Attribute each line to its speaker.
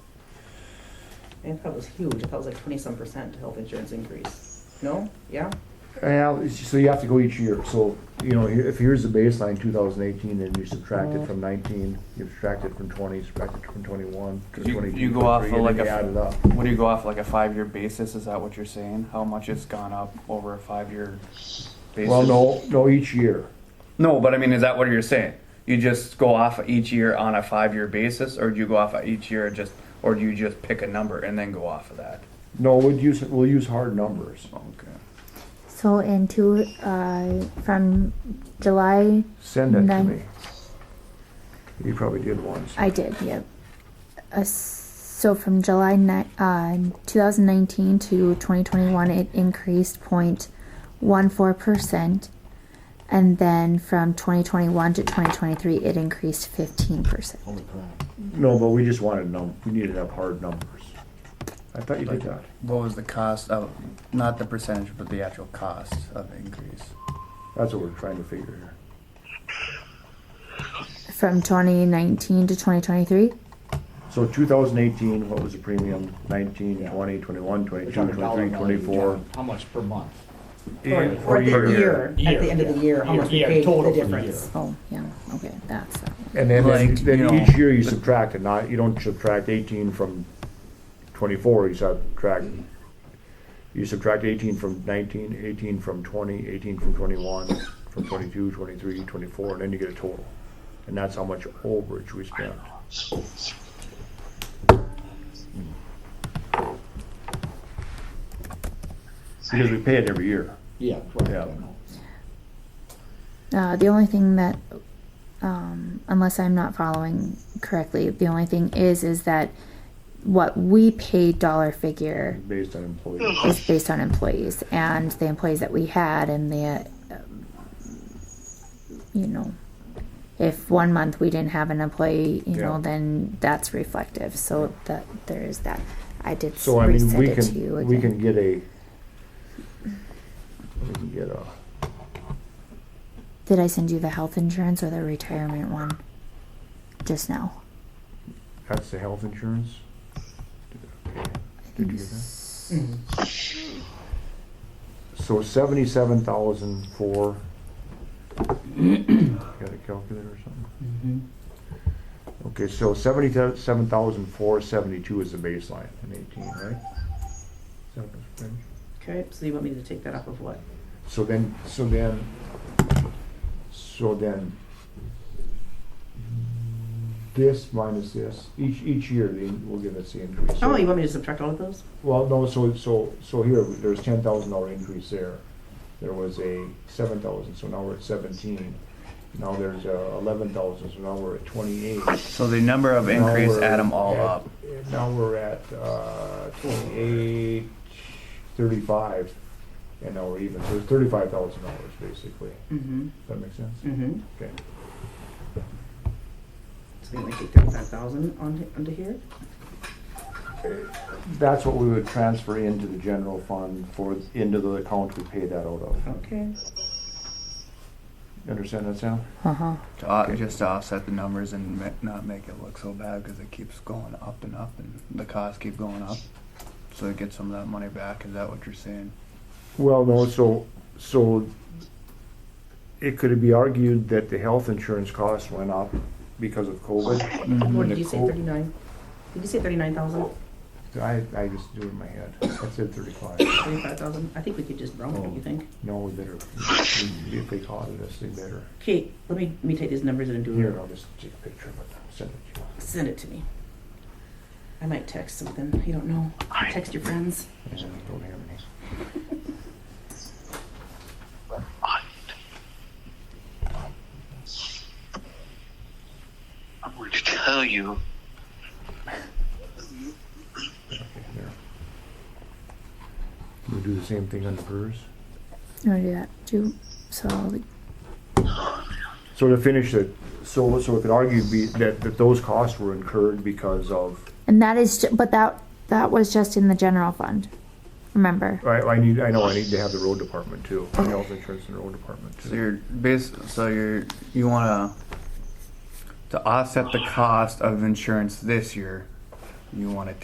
Speaker 1: I thought it was huge. I thought it was like twenty-some percent health insurance increase. No? Yeah?
Speaker 2: Yeah, it's just- so you have to go each year, so, you know, here- if here's the baseline, two thousand eighteen, and you subtract it from nineteen, you subtract it from twenty, subtract it from twenty-one, to
Speaker 3: You-
Speaker 2: twenty-two,
Speaker 3: you go off
Speaker 2: twenty-three, and
Speaker 3: of like
Speaker 2: then you
Speaker 3: a-
Speaker 2: add it up.
Speaker 3: What do you go off like a five-year basis? Is that what you're saying? How much it's gone up over a five-year basis?
Speaker 2: Well, no, no, each year.
Speaker 3: No, but I mean, is that what you're saying? You just go off of each year on a five-year basis, or do you go off of each year just, or do you just pick a number and then go off of that?
Speaker 2: No, we'd use, we'll use hard numbers.
Speaker 3: Okay.
Speaker 4: So in two, uh, from July,
Speaker 2: Send that to
Speaker 4: None.
Speaker 2: me. You probably did once.
Speaker 4: I did, yep. Uh, so from July ni- uh, 2019 to 2021, it increased 0.14%. And then from 2021 to 2023, it increased 15%.
Speaker 2: No, but we just wanted num, we needed to have hard numbers. I thought you did that.
Speaker 5: What was the cost of, not the percentage, but the actual cost of the increase?
Speaker 2: That's what we're trying to figure here.
Speaker 4: From 2019 to 2023,
Speaker 2: So two thousand eighteen, what was the premium? Nineteen, twenty, twenty-one, twenty-two,
Speaker 6: We're talking dollar
Speaker 2: twenty-three,
Speaker 6: amount, you're
Speaker 2: twenty-four.
Speaker 6: talking How much per month?
Speaker 1: Or
Speaker 2: And
Speaker 1: or
Speaker 2: per
Speaker 1: at the
Speaker 2: year.
Speaker 1: year, at the end of the year, how much we
Speaker 6: Yeah,
Speaker 1: paid,
Speaker 6: total
Speaker 1: the
Speaker 6: for the
Speaker 1: difference.
Speaker 6: year.
Speaker 4: oh, yeah, okay, that's uh, that one.
Speaker 2: And then, then,
Speaker 5: Like, you
Speaker 2: then
Speaker 5: know,
Speaker 2: each year you subtract it, not, you don't subtract eighteen from twenty-four, you subtract, you subtract eighteen from 19, 18 from 20, 18 from twenty-one, from 22, 23, 24, and then you get a total. And that's how much overage we spent. Because we pay it every year.
Speaker 6: Yeah, correct,
Speaker 2: Yeah.
Speaker 6: I know.
Speaker 4: Uh, the only thing that, um, unless I'm not following correctly, the only thing is is that what we pay dollar figure
Speaker 2: based on employees.
Speaker 4: is based on employees and the employees that we had and the, uh, you know, if one month we didn't have an employee, you
Speaker 2: Yeah.
Speaker 4: know, then that's reflective. So that there is that. I did
Speaker 2: So I mean,
Speaker 4: resend
Speaker 2: we
Speaker 4: it to you
Speaker 2: can,
Speaker 4: again.
Speaker 2: we can get a, we can get a,
Speaker 4: Did I send you the health insurance or the retirement one? Just now.
Speaker 2: that's the health insurance? Did you get that? So seventy-seven thousand for, got a calculator or something? Okay, so seventy-seven thousand four seventy-two is the baseline in eighteen, right? Is that what's been?
Speaker 1: Okay, so you want me to take that off of what?
Speaker 2: So then, so then, so then, this minus this, each, each year, they will give us the increase.
Speaker 1: Oh, you want me to subtract all of those?
Speaker 2: Well, no, so, so, so here, there's ten thousand dollar increase there. There was a seven thousand, so now we're at seventeen. Now there's uh eleven thousand, so now we're at twenty-eight.
Speaker 3: So the number of
Speaker 2: Now
Speaker 3: increase,
Speaker 2: we're
Speaker 3: add them all
Speaker 2: at-
Speaker 3: up.
Speaker 2: Now we're at, uh, twenty-eight, thirty-five, and now we're even, so it's thirty-five thousand dollars, basically.
Speaker 1: Mm-hmm,
Speaker 2: That makes sense?
Speaker 1: mm-hmm.
Speaker 2: Okay.
Speaker 1: So you want me to take that five thousand onto, onto here?
Speaker 2: That's what we would transfer into the general fund for, into the account we pay that out of.
Speaker 1: Okay.
Speaker 6: Mm-hmm.
Speaker 2: You understand that, Sam?
Speaker 4: Uh-huh.
Speaker 5: To, au- Uh, just to offset the numbers and ma- not make it look so bad because it keeps going up and up and the costs keep going up. So to get some of that money back, is that what you're saying?
Speaker 2: Well, no, so, so it could be argued that the health insurance costs went up because of COVID.
Speaker 1: Mm-hmm. What did
Speaker 2: the
Speaker 1: you say,
Speaker 2: co-
Speaker 1: thirty-nine? Did you say thirty-nine thousand?
Speaker 2: I, I just do it in my head. I said thirty-five.
Speaker 1: Thirty-five thousand? I think we could just round
Speaker 6: Oh.
Speaker 1: it, you think?
Speaker 2: No, we better, if they caught it, us, they better.
Speaker 1: Okay, let me, let me take these numbers and do
Speaker 2: Here,
Speaker 1: it.
Speaker 2: I'll just take a picture of it, send it to you.
Speaker 1: Send it to me. I might text something, you don't know. Text your friends.
Speaker 2: I don't have any.
Speaker 7: I'm going to tell you
Speaker 2: Okay, there. We do the same thing on the PERS?
Speaker 4: You want to Oh, do that too? So like,
Speaker 2: So to finish it, so, so it could argue be, that, that those costs were incurred because of,
Speaker 4: And that is, ju- but that, that was just in the general fund, remember?
Speaker 2: I, I need, I know, I need to have the road department too, the health insurance and road department
Speaker 3: So
Speaker 2: too.
Speaker 3: you're bas so you're, you wanna, to offset the cost of insurance this year, you wanna